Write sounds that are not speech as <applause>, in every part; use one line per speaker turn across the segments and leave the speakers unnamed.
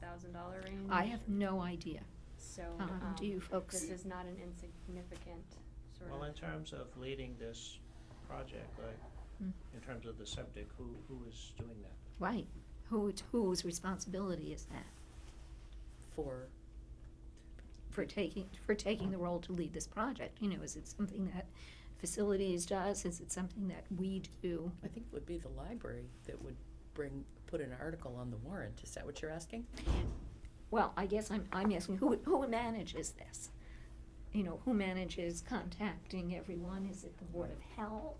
thousand dollar range.
I have no idea.
So,
um,
um,
do you folks-
this is not an insignificant sort of.
Well, in terms of leading this project, like,
Mm.
in terms of the subject, who, who is doing that?
Right. Who, whose responsibility is that
for,
for taking, for taking the role to lead this project? You know, is it something that facilities does? Is it something that we do?
I think it would be the library that would bring, put an article on the warrant. Is that what you're asking?
Well, I guess I'm, I'm asking, who, who manages this? You know, who manages contacting everyone? Is it the Board of Health?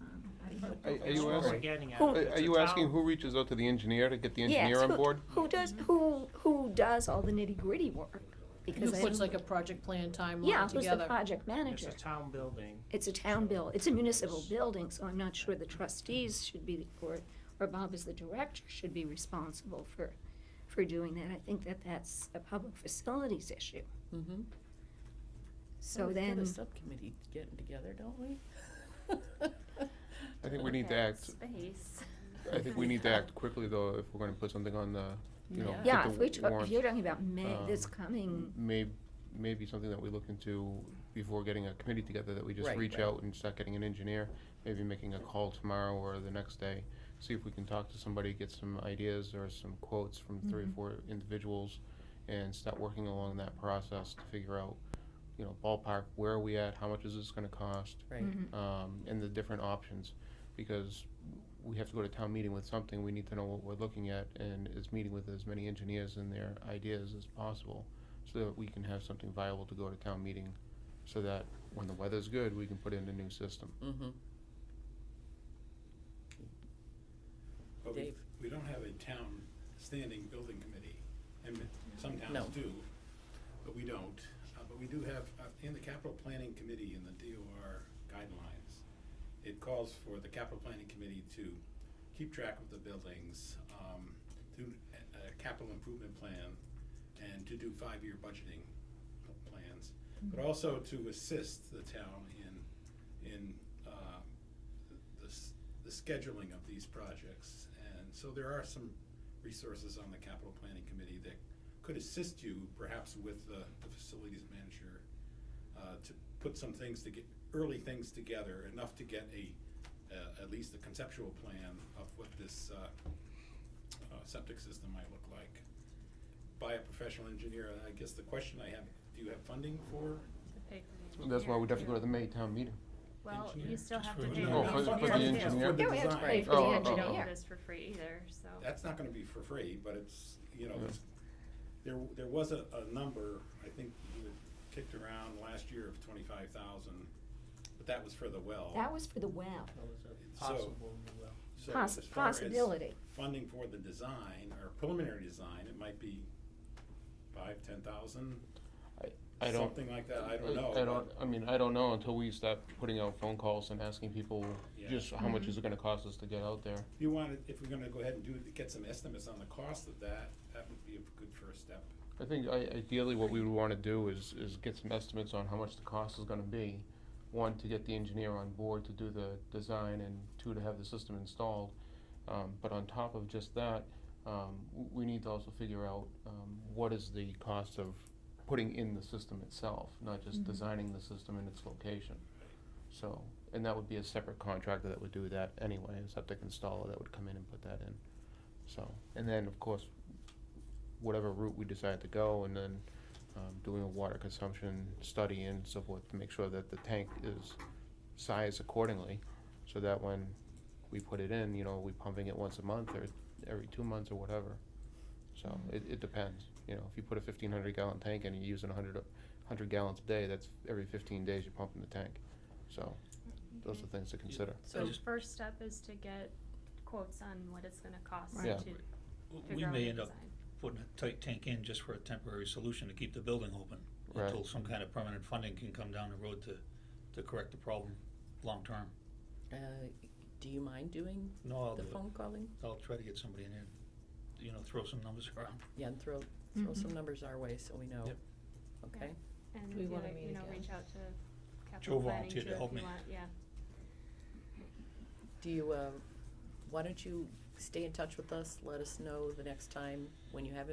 Um, I don't know.
Are- are
That's
you
what we're
asking-
getting at.
Who-
Are
It's a
are you asking
town-
who reaches out to the engineer to get the
Yes,
engineer on
who-
board?
Who does, who, who does all the nitty-gritty work?
Who
Because I
puts
don't-
like a project plan
Yeah,
timeline
who's the
together?
project
It's
manager?
a town building.
It's a town bill, it's a municipal building, so I'm not sure the trustees should be, or, or Bob as the director should be responsible for, for doing that. I think that that's a public facilities issue.
Mm-hmm.
So
We've got
then,
a subcommittee getting together, don't we?
I think we need to act,
Space.
I
<laughs>
think we need to
<laughs>
act quickly though, if we're gonna put something on the, you know.
yeah,
Yeah.
put
if
the
we, talk- if
warrant,
you're talking about May, this
um,
coming,
May, maybe something that we look into before getting a committee together, that we just
Right,
reach
right.
out and start getting an engineer, maybe making a call tomorrow or the next day, see if we can talk to somebody, get some ideas or some quotes from three or
Mhm.
four individuals, and start working along that process to figure out, you know, ballpark, where are we at, how much is this gonna cost?
Right.
Mhm.
um, and the different options, because we have to go to town meeting with something, we need to know what we're looking at, and is meeting with as many engineers and their ideas as possible, so that we can have something viable to go to town meeting, so that when the weather's good, we can put in a new system.
Mm-hmm.
But we,
Dave.
we don't have a town standing building committee, and some
No.
towns do, but we don't. Uh, but we do have, uh, in the capital planning committee in the DOR guidelines, it calls for the capital planning committee to keep track of the buildings, um, do a, a capital improvement plan, and to do five-year budgeting pl- plans, but also to assist the town in, in, um, the, s- the scheduling of these projects. And so there are some resources on the capital planning committee that could assist you perhaps with the, the facilities manager uh, to put some things to get, early things together, enough to get a, uh, at least a conceptual plan of what this uh, uh, septic system might look like by a professional engineer. And I guess the question I have, do you have funding for?
That's why we'd have to go to the May town meeting.
Well, you
engineer,
still have to
for
pay.
the-
for
Oh,
the
for the- for the
engineer, too.
engineer?
yeah, we have to pay
design.
for the
Oh, oh,
We don't
oh.
do
engineer.
this for free either, so.
That's not gonna be for free, but it's, you know,
Yeah.
it's- there, there was a, a number, I think you had kicked around last year of twenty-five thousand, but that was for the well.
That was for the well,
Well, it's a
So-
Possible, new well.
So
poss-
as far as
possibility.
Funding for the design or preliminary design, it might be five, ten thousand,
I don't,
something like that, I
I
don't know.
I don't, I mean, I don't know until we start putting out phone calls and asking people
Yeah.
just how much is it gonna cost us to get out there.
If you wanted, if we're gonna go ahead and do, it, get some estimates on the cost of that, that would be a good first step.
I think I, ideally what we would wanna do is, is get some estimates on how much the cost is gonna be. One, to get the engineer on board to do the design, and two, to have the system installed. Um, but on top of just that, um, w- we need to also figure out, um, what is the cost of putting in the system itself, not just
Mhm.
designing the system and its location.
Right.
So, and that would be a separate contractor that would do that anyway, a septic installer that would come in and put that in. So, and then, of course, whatever route we decide to go, and then um, doing a water consumption study and so forth to make sure that the tank is sized accordingly, so that when we put it in, you know, we pumping it once a month or every two months or whatever. So it, it depends, you know, if you put a fifteen hundred gallon tank in and you're using a hundred, hundred gallons a day, that's every fifteen days you're pumping the tank. So those are things to consider.
So
So-
first step is to get quotes on what it's gonna cost to
Right.
figure
Yeah.
out the
We may end up
design.
putting a tight tank in just for a temporary solution to keep the building open.
Right.
Until some kind of permanent funding can come down the road to, to correct the problem long-term.
Uh, do you mind doing
No, I'll do
the
it.
phone calling?
I'll try to get somebody in here, you know, throw some numbers <laughs> around.
Yeah, and throw, throw
Mhm.
some numbers our way so we know.
Yep.
Okay?
And
We
the
wanna
other-
meet
you know,
again.
reach out to capital planning too
volunteered
if
to
you
help
want,
me.
yeah.
Do you, uh, why don't you stay in touch with us? Let us know the next time when you have